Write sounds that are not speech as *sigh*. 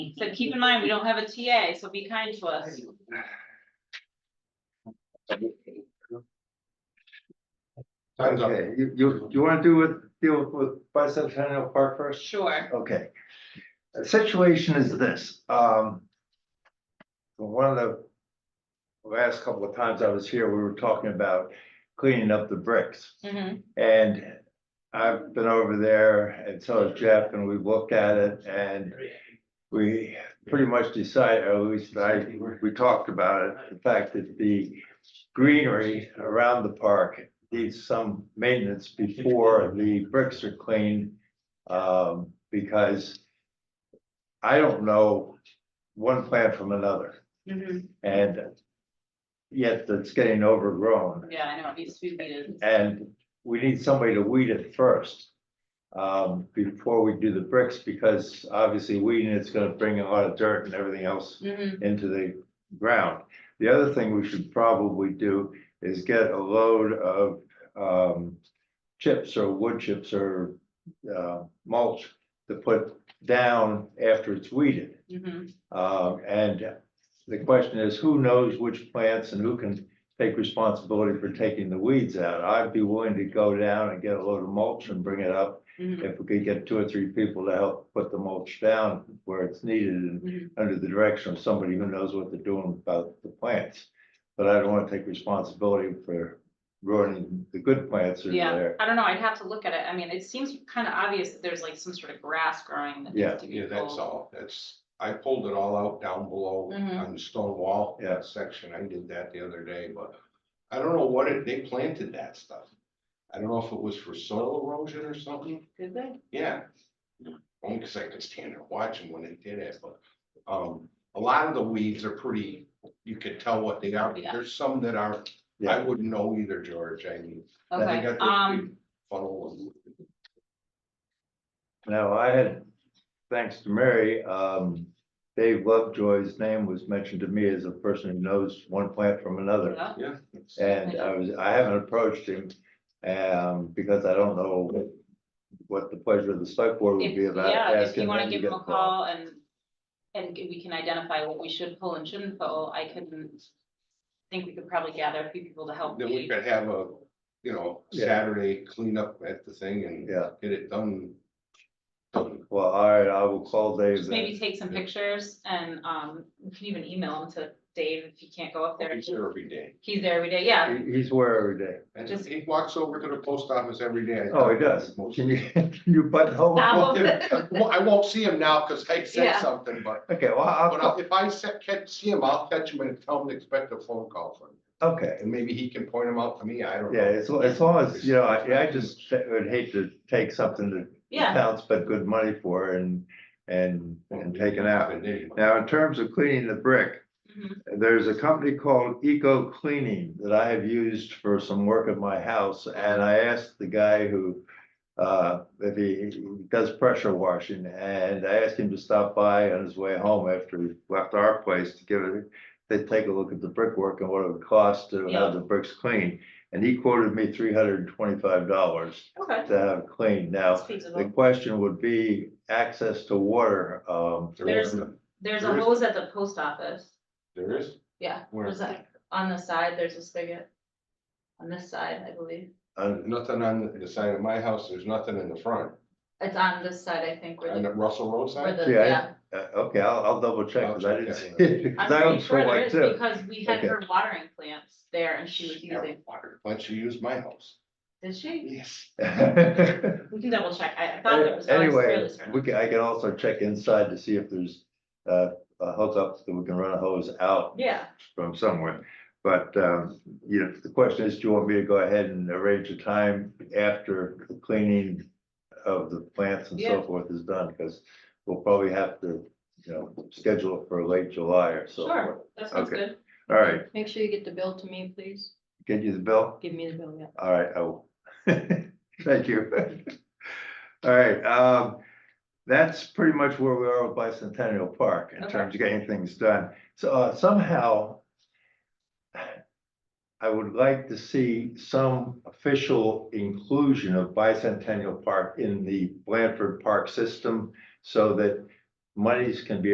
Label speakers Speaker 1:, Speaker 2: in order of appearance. Speaker 1: So keep in mind, we don't have a TA, so be kind to us.
Speaker 2: Time's up.
Speaker 3: Okay, you, you, you wanna do with, deal with bicentennial park first?
Speaker 1: Sure.
Speaker 3: Okay. The situation is this, um. One of the last couple of times I was here, we were talking about cleaning up the bricks.
Speaker 1: Mhm.
Speaker 3: And I've been over there and so has Jeff and we've looked at it and we pretty much decided, or at least I, we talked about it, the fact that the greenery around the park needs some maintenance before the bricks are cleaned. Um, because I don't know one plant from another
Speaker 1: Mhm.
Speaker 3: and yet it's getting overgrown.
Speaker 1: Yeah, I know, it needs to be weeded.
Speaker 3: And we need somebody to weed it first. Um, before we do the bricks, because obviously weeding it's gonna bring a lot of dirt and everything else
Speaker 1: Mhm.
Speaker 3: into the ground. The other thing we should probably do is get a load of um chips or wood chips or uh mulch. To put down after it's weeded.
Speaker 1: Mhm.
Speaker 3: Um, and the question is, who knows which plants and who can take responsibility for taking the weeds out? I'd be willing to go down and get a load of mulch and bring it up
Speaker 1: Mhm.
Speaker 3: if we could get two or three people to help put the mulch down where it's needed
Speaker 1: Mhm.
Speaker 3: and under the direction of somebody who knows what they're doing about the plants. But I don't want to take responsibility for ruining the good plants that are
Speaker 1: Yeah,
Speaker 3: there.
Speaker 1: I don't know, I'd have to look at it. I mean, it seems kind of obvious that there's like some sort of grass growing that
Speaker 3: Yeah,
Speaker 1: needs to be
Speaker 2: Yeah,
Speaker 1: pulled.
Speaker 2: that's all, that's, I pulled it all out down below
Speaker 1: Mhm.
Speaker 2: on the stone wall.
Speaker 3: Yeah.
Speaker 2: Section, I did that the other day, but I don't know what it, they planted that stuff. I don't know if it was for soil erosion or something,
Speaker 1: Good, good.
Speaker 2: yeah. Only because I could stand there watching when they did it, but, um, a lot of the weeds are pretty, you could tell what they are, but
Speaker 1: Yeah.
Speaker 2: there's some that are, I
Speaker 3: Yeah,
Speaker 2: wouldn't know either, George, I mean. they
Speaker 1: Okay,
Speaker 2: got those
Speaker 1: um,
Speaker 2: big Funnel and
Speaker 3: now I had, thanks to Mary, um, Dave Lovejoy's name was mentioned to me as a person who knows one plant from another.
Speaker 1: yeah,
Speaker 2: Yeah. it's-
Speaker 3: And I was, I haven't approached him, um, because I don't know what, what the pleasure of the select board would
Speaker 1: if,
Speaker 3: be about
Speaker 1: yeah, if
Speaker 3: asking
Speaker 1: you want to
Speaker 3: them to
Speaker 1: give
Speaker 3: get
Speaker 1: them a
Speaker 3: involved.
Speaker 1: call and, and we can identify what we should pull and shouldn't pull, I couldn't think we could probably gather a few people to help
Speaker 2: Then we
Speaker 1: me.
Speaker 2: could have a, you know,
Speaker 3: Yeah.
Speaker 2: Saturday cleanup at the thing and
Speaker 3: Yeah,
Speaker 2: get it done. Done.
Speaker 3: well, all right, I will call Dave
Speaker 1: Just maybe
Speaker 3: then.
Speaker 1: take some
Speaker 2: Yeah.
Speaker 1: pictures and, um, you can even email them to Dave if he can't go up there.
Speaker 2: He's there every day.
Speaker 1: He's there every day, yeah,
Speaker 3: He- He's where every day.
Speaker 2: And
Speaker 1: Just-
Speaker 2: he walks over to the post office every day.
Speaker 3: Oh, he does.
Speaker 2: Most-
Speaker 3: Can you, *laughs* can you butthole?
Speaker 1: Nah,
Speaker 2: Well, yeah, well, I won't see him now because I said
Speaker 1: Yeah.
Speaker 2: something, but,
Speaker 3: Okay, well, I'll,
Speaker 2: but I'll-
Speaker 3: call-
Speaker 2: if I se- catch, see him, I'll catch him and tell him to expect a phone call from him.
Speaker 3: okay.
Speaker 2: And maybe he can point him out to me, I don't
Speaker 3: Yeah,
Speaker 2: know.
Speaker 3: as, lo- as long as, you know, I, I just would hate to take something that
Speaker 1: yeah.
Speaker 3: town spent good money for and, and, and take it out.
Speaker 2: And then-
Speaker 3: Now, in terms of cleaning the brick,
Speaker 1: Mhm.
Speaker 3: There's a company called Eco Cleaning that I have used for some work at my house, and I asked the guy who. Uh, if he does pressure washing, and I asked him to stop by on his way home after he left our place to give it. They take a look at the brickwork and what it would cost to
Speaker 1: Yeah.
Speaker 3: have the bricks cleaned, and he quoted me three hundred and twenty-five dollars
Speaker 1: Okay.
Speaker 3: to have it cleaned.
Speaker 1: That's
Speaker 3: Now, the
Speaker 1: feasible.
Speaker 3: question would be access to water, um,
Speaker 2: There is,
Speaker 1: There's a
Speaker 2: there is-
Speaker 1: hose at the post office,
Speaker 2: there is,
Speaker 1: yeah,
Speaker 2: Where?
Speaker 1: there's a, on the side, there's a spigot. On this side, I believe,
Speaker 3: and
Speaker 2: nothing on the side of my house, there's nothing in the front,
Speaker 1: it's on this side, I think, where
Speaker 2: on
Speaker 1: the,
Speaker 2: the Russell Road
Speaker 1: where
Speaker 2: side.
Speaker 1: the,
Speaker 3: Yeah, I-
Speaker 1: yeah.
Speaker 3: Uh, okay, I'll, I'll double check,
Speaker 2: I'll
Speaker 3: because I
Speaker 2: check
Speaker 3: didn't
Speaker 2: that
Speaker 3: see
Speaker 2: one
Speaker 1: I'm
Speaker 3: it, 'cause
Speaker 1: pretty
Speaker 3: I was
Speaker 1: sure
Speaker 3: sure
Speaker 1: there
Speaker 3: like
Speaker 1: is
Speaker 3: too.
Speaker 1: because we had
Speaker 3: Okay.
Speaker 1: her watering plants there and she was using,
Speaker 2: Why don't you use my house?
Speaker 1: did she?
Speaker 2: Yes.
Speaker 1: We can double check, I I thought it was, I was fairly
Speaker 3: Anyway,
Speaker 1: certain.
Speaker 3: we can, I can also check inside to see if there's, uh, a hookup that we can run a hose out
Speaker 1: Yeah,
Speaker 3: from somewhere. But, um, you know, the question is, do you want me to go ahead and arrange a time after the cleaning of the plants and so
Speaker 1: Yeah.
Speaker 3: forth is done? Because we'll probably have to, you know, schedule it for late July or so forth.
Speaker 1: sure, that sounds
Speaker 3: Okay.
Speaker 1: good,
Speaker 3: All right,
Speaker 4: Make sure you get the bill to me, please.
Speaker 3: get you the bill?
Speaker 4: Give me the bill, yeah.
Speaker 3: All right, I will. *laughs* Thank you. *laughs* All right, um, that's pretty much where we are with Bicentennial Park in
Speaker 1: Okay.
Speaker 3: terms of getting things done. So uh, somehow I would like to see some official inclusion of Bicentennial Park in the Blanford Park system so that monies can be